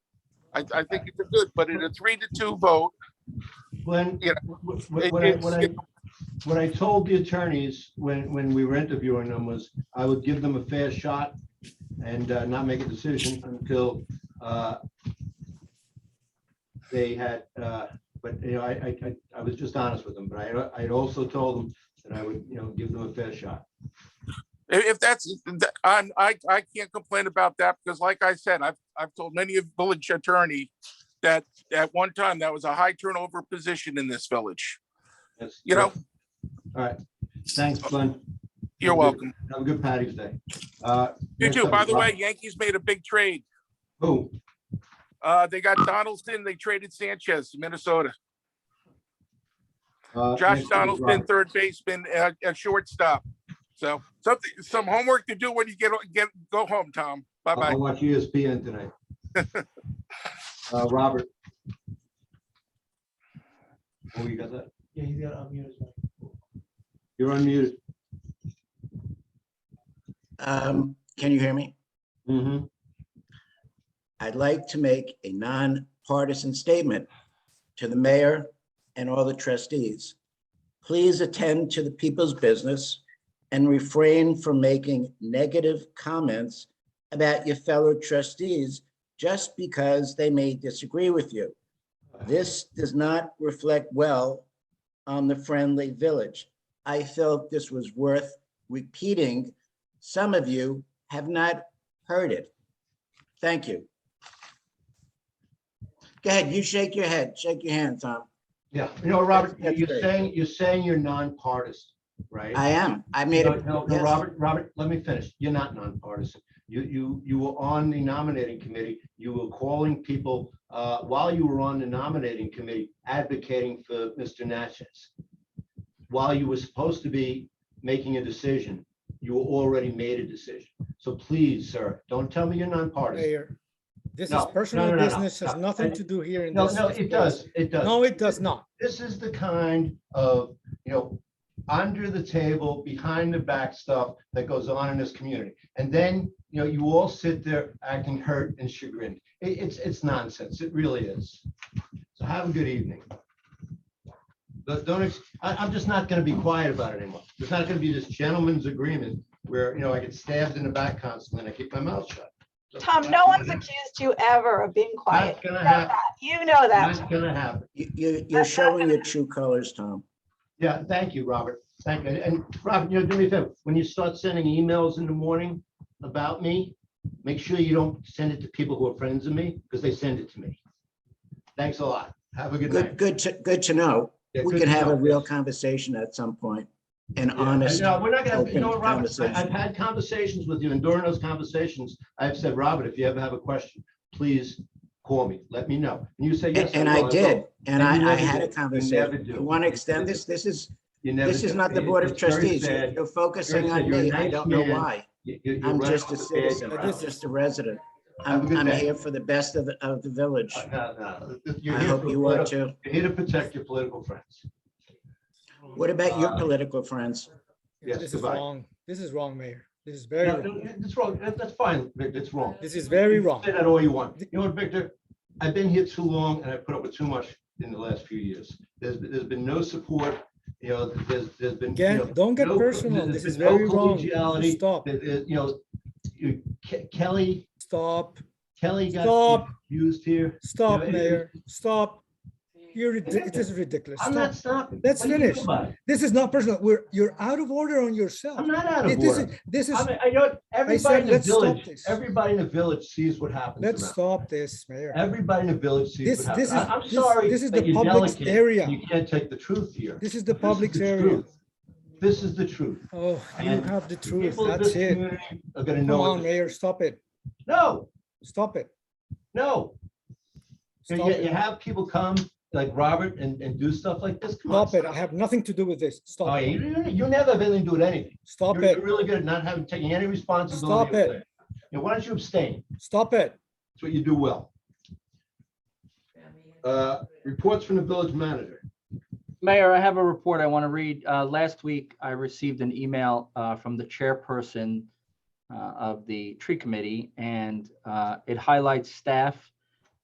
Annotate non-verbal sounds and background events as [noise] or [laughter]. I, I think it's a good, but in a three to two vote, Glenn, You wh- wh- it- what I, it's- what I, what I told the attorneys when, when we were interviewing them was I would give them a fair shot and uh, not make a decision until uh, they had, uh, but, you know, I, I, I- I was just honest with them, but I, I also told them that I would, you know, give them a fair shot. i- if that's, that- I'm, I, I can't complain about that because like I said, I've, I've told many of village attorney that at one time, that was a high turnover position in this village. That's- You know- All right. Thanks, Glenn. You're Mm-hmm. welcome. Have a good Patty's Day. Uh, You next too. up By is the Rob- way, Yankees made a big trade. Who? Uh, they got Donaldson, they traded Sanchez, Minnesota. Uh, next Josh up is Donaldson, Robert. third baseman, uh, at shortstop. So something, some homework to do when you get, get, go home, Tom. Bye-bye. I'll watch E ESPN [laughs] tonight. Uh, Robert. Oh, you got that? Yeah, he's got unmute as well. You're unmuted. Um, can you hear me? Mm-hmm. Mhm. I'd like to make a nonpartisan statement to the mayor and all the trustees. Please attend to the people's business and refrain from making negative comments about your fellow trustees just because they may disagree with you. This does not reflect well on the friendly village. I felt this was worth repeating. Some of you have not heard it. Thank you. Go ahead, you shake your head, shake your hand, Tom. Yeah, you know, Robert, That's you're great. saying, you're saying you're nonpartisan, right? I am. I made No, it. no, no, yes. Robert, Robert, let me finish. You're not nonpartisan. You, you, you were on the nominating committee. You were calling people, uh, while you were on the nominating committee, advocating for Mr. Natchez. While you were supposed to be making a decision, you already made a decision. So please, sir, don't tell me you're nonpartisan. Mayor, this No, is no, no, personal no, no, business, has no, nothing I- to do here in No, this. no, it does, it does. No, it does not. this is the kind of, you know, under the table, behind the back stuff that goes on in this community. And then, you know, you all sit there acting hurt and chagrined. It- it's, it's nonsense. It really is. So have a good evening. But don't, ex- I, I'm just not gonna be quiet about it anymore. There's not gonna be this gentleman's agreement where, you know, I get stabbed in the back constantly and I keep my mouth shut. Tom, no one's accused you ever of being quiet. Not gonna You know happen. that. You know that. Not gonna happen. You, you- you're showing your true colors, Tom. Yeah, thank you, Robert. Thank you. And- And Robert, you know, do me a favor, when you start sending emails in the morning about me, make sure you don't send it to people who are friends of me, because they send it to me. Thanks a lot. Have a good Good, night. good to, good to know. Yeah, We good can to have a know. real conversation at some point, an Yeah, honest. No, we're not gonna, you know what, open Robert, I- I've conversation. had conversations with you, and during those conversations, I've said, Robert, if you ever have a question, please call me, let me know. And you say, yes. And I will, did, will." and And you I, I never had a do. You never conversation. do. You want to extend this? This is, You never. this is do. not the It- Board of it's very Trustees. sad. You're Very focusing sad. on You're a me. I nice don't know man. why. You- you- you're I'm right just off a the page. citizen. I'm just a resident. Have a I'm, good I'm day. here for the best of, the of the village. Uh, no, no, You're I here hope for you are politi- too. you're here to protect your political friends. What about your Uh, political friends? Yes, This is goodbye. wrong. This is wrong, Mayor. This is very No, wrong. no, It's wrong, That- that's fine, Victor, it's wrong. This is very You wrong. Say that all you want. You know what, Victor? I've been here too long and I've put up with too much in the last few years. There's, there's been no support, you know, there's, there's been. you know, Again, don't get no- personal. there's This is been no very wrong. collegiality. Stop, There- there- You know, you- Ke- Kelly, stop, Kelly got Stop. used here. stop, it- it- Mayor, stop. You're, ridi- it is ridiculous. I'm Stop. not stopping. Let's What do you do finish. about it? This is not personal. We're, you're out of order on yourself. I'm not out of It- This order. is, this is, I mean, I know everybody in the let's stop village, this. everybody in the village sees what happens let's around. stop this, Mayor. Everybody in the village sees This, what this happens. is, I- I'm this- sorry this is that the you're public's delicate. You area. can't take the truth here. This is the This is public's the area. truth. This is the truth. Oh, you And have the The truth. people of That's this it. community Are gonna know. Come what on, the- Mayor, stop it. No, Stop it. no. You, Stop you- you it. have people come like Robert and, and do stuff like this. Come on. Stop it. I have nothing to do with this. Oh, Stop yeah, it. you, you never have anything to do with anything. Stop You're- it. You're really good at not having, taking any responsibility. Stop of it. things. You know, why don't you abstain? Stop it. That's what you do well. Uh, Reports from the village manager. Mayor, I have a report I want to read. Uh, Last week, I received an email uh, from the chairperson uh, of the tree committee, and uh, it highlights staff